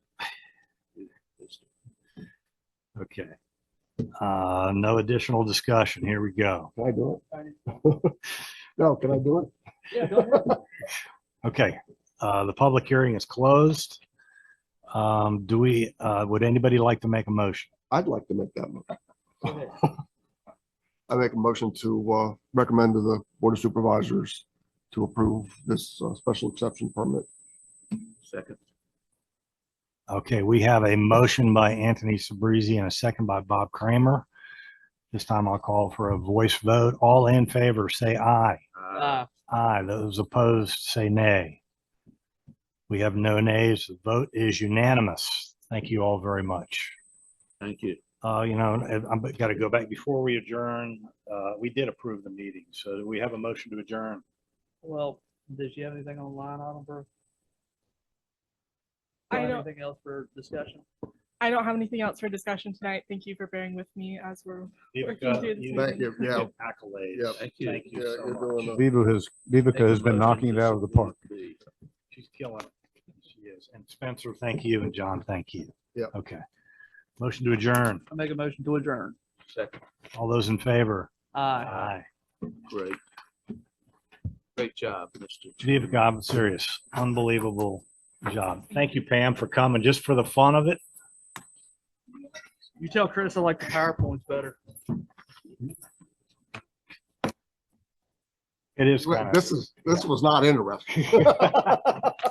Okay. Uh, no additional discussion. Here we go. Can I do it? No, can I do it? Yeah, go ahead. Okay, uh, the public hearing is closed. Um, do we, uh, would anybody like to make a motion? I'd like to make that. mo- Go ahead. I make a motion to uh, recommend to the Board of Supervisors to approve this uh, special exception permit. Second. Okay, we have a motion by Anthony Sabrizi and a second by Bob Kramer. This time I'll call for a voice vote. All in favor, say aye. Uh, Aye. Those opposed, say nay. We have no nays. The vote is unanimous. Thank you all very much. Thank you. Uh, you know, and I'm got to go back before we adjourn. Uh, we did approve the meeting, so do we have a motion to adjourn. well, does you have anything on line item for? I Got don't- Anything else for discussion? I don't have anything else for discussion tonight. Thank you for bearing with me as we're Vivica, Thank you- Thank you, yeah. Accolades. Thank you. Thank you Yeah, so you're much. doing a- Viva has, Vivica has been knocking it out of the park. She's killing it. She is. And Spencer, thank you. And John, thank you. Yeah. Okay. Motion to adjourn. I make a motion to adjourn. Uh, Second, All those in favor? Uh, Aye. great. Great job, Mr. Vivica, I'm serious. Unbelievable job. Thank you, Pam, for coming just for the fun of it. You tell Chris I like the PowerPoints better. It is. kind of- This is, this was not interesting.